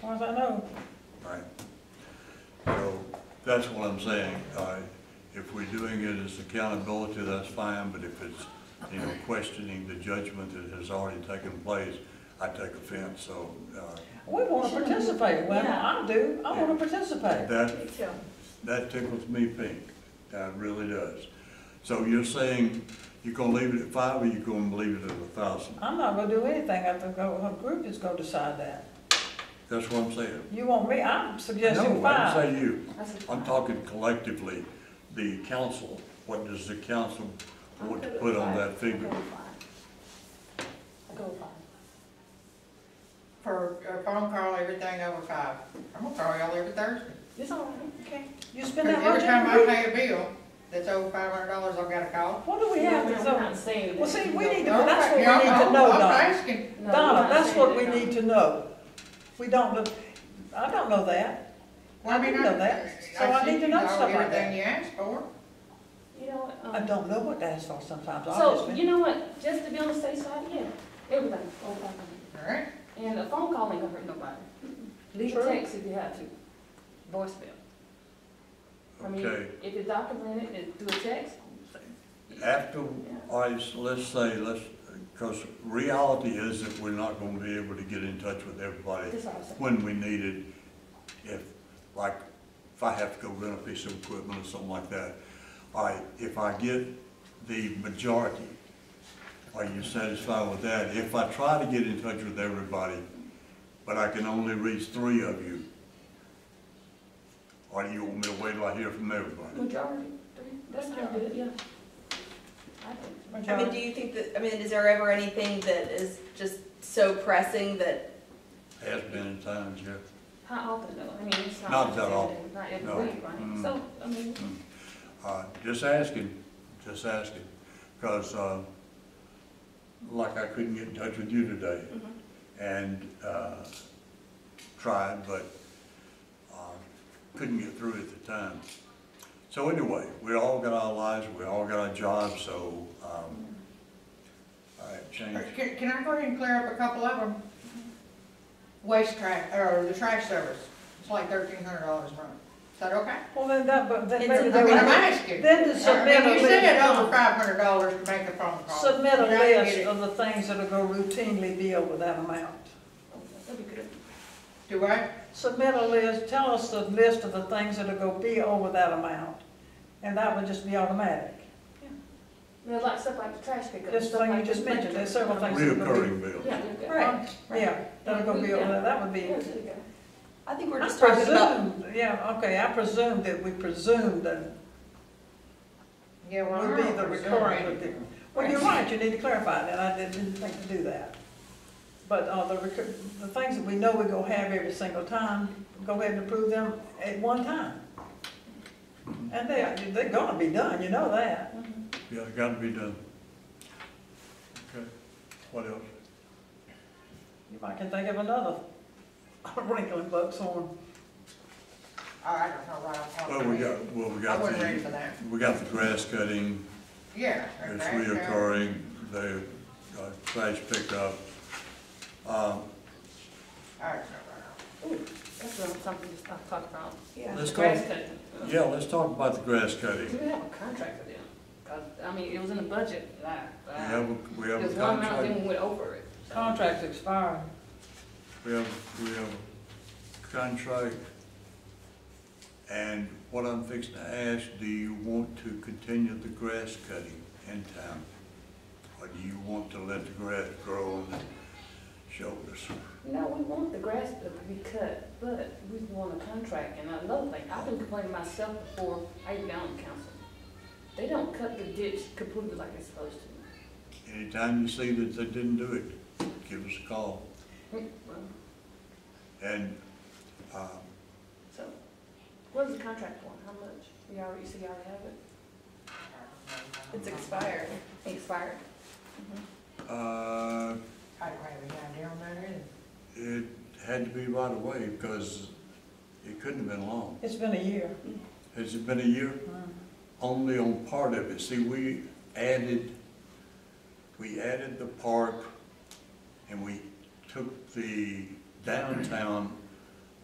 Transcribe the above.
far as I know. Right. So that's what I'm saying. Uh, If we're doing it as accountability, that's fine, but if it's, you know, questioning the judgment that has already taken place, I take offense, so uh, We want to participate, well, I do, I want to participate. that, Me too. that tickles me pink. That really does. So you're saying you're gonna leave it at five or you're gonna leave it at a thousand? I'm not gonna do anything, I think our our group is gonna decide that. That's what I'm saying. You want me, I'm suggesting No, I five. didn't say you. I said I'm five. talking collectively, the council, what does the council I'll want to go put with on five. that figure? I'll go with five. I'll go with five. For a phone call, everything over five. I'm gonna call y'all every Thursday. It's all right, okay. You 'Cause spend that every much time on I a group? pay a bill that's over five hundred dollars, I've gotta call. What do we No, have we're that's not- we're on? not saying Well, that see, you we don't- need to, No, that's what we y'all- need to know, I'm Donna. asking. No, we're Donna, not that's saying what that we you need don't. to know. We don't, look- I don't know that. Well, I mean, do know that, so I sent need to you know all stuff like Everything that. you asked for. You know what? um, I don't know what to ask for sometimes, So, obviously. you know what, just to be on the safe side, yeah, everything, over five hundred. All right, And a phone call ain't gonna hurt nobody. Leave a True. text if you have to, voicemail. I mean, Okay, if it's documented, then do a text. after, all right, so let's say, let's, because reality is that we're not gonna be able to get in touch with everybody That's all I'm saying. when we need it. If, like, if I have to go rent a piece of equipment or something like that, all right, if I get the majority, are you satisfied with that? If I try to get in touch with everybody, but I can only reach three of you, or do you want me to wait till I hear from everybody? Majority, three, that's not good, yeah. I think. I mean, do you think that, I mean, is there ever anything that is just so pressing that, Has been in times, yeah. How often though? I mean, it's not. Not that often. Not every No. week, right? Mm. So, I mean, Uh, Just asking, just asking, because like I couldn't get in touch with you today Mm-hmm. and uh, tried, but uh, couldn't get through at the time. So anyway, we all got our lives, we all got our jobs, so, um, all right, change. can, can I go ahead and clear up a couple of them? Waste trash, or the trash service, it's like thirteen hundred dollars a month. Is that okay? Well, then that, but then It's maybe a- I they mean, I'm would asking. Then to I mean, submit a You said list. over five hundred dollars to make a phone call. submit a And I didn't get list it. of the things that are gonna routinely be over that amount. that'd be good. Do I? submit a list, tell us the list of the things that are gonna be over that amount, and that would just be automatic. You know, like stuff like the trash pickup. Just stuff like you the just mentioned, there's several things. Reoccurring bills. Yeah, you're good. Right, yeah, that are gonna be over, that that would be. Yeah, there you go. I think I we're just talking about, presume, yeah, okay, I presume that we presume that Yeah, well. would I be don't the presume recurring anything. would be. Well, you're right, you need to clarify that, I didn't didn't think to do that. But, uh, the recur, the things that we know we're gonna have every single time, go ahead and approve them at one time. And they, they're gonna be done, you know that. Yeah, it got to be done. Okay, what else? You might can think of another wrinkle in Buck's horn. Oh, I don't know right off the top of Well, my we head. got, well, we I got wasn't ready for the, that. we got the grass cutting. Yeah. It's okay, yeah. reoccurring, the uh, trash pickup. Um, I don't know right off. That's what I'm talking, just talk talk about. Let's go, Grass cutting. yeah, let's talk about the grass Do cutting. we have a contract for them? 'Cause, I mean, it was in the budget, like, We have, uh, a- we have a because one amount of contract, them went over it. so. Contract's expiring. we have, we have a contract. And what I'm fixing to ask, do you want to continue the grass cutting in town? Or do you want to let the grass grow on the shoulders? No, we want the grass to be cut, but we want a contract, and another thing, I've been complaining myself before I even got on the council. They don't cut the ditch completely like they're supposed to. Anytime you see that they didn't do it, give us a call. Hmm, Well, And, um, So, what is the contract for, how much? You already, you see, you already have it? it's expired. Expired. uh, I don't have any idea on that either. It had to be right away because it couldn't have been long. It's been a year. Has it been a year? Only on part of it. See, we added, we added the park and we took the downtown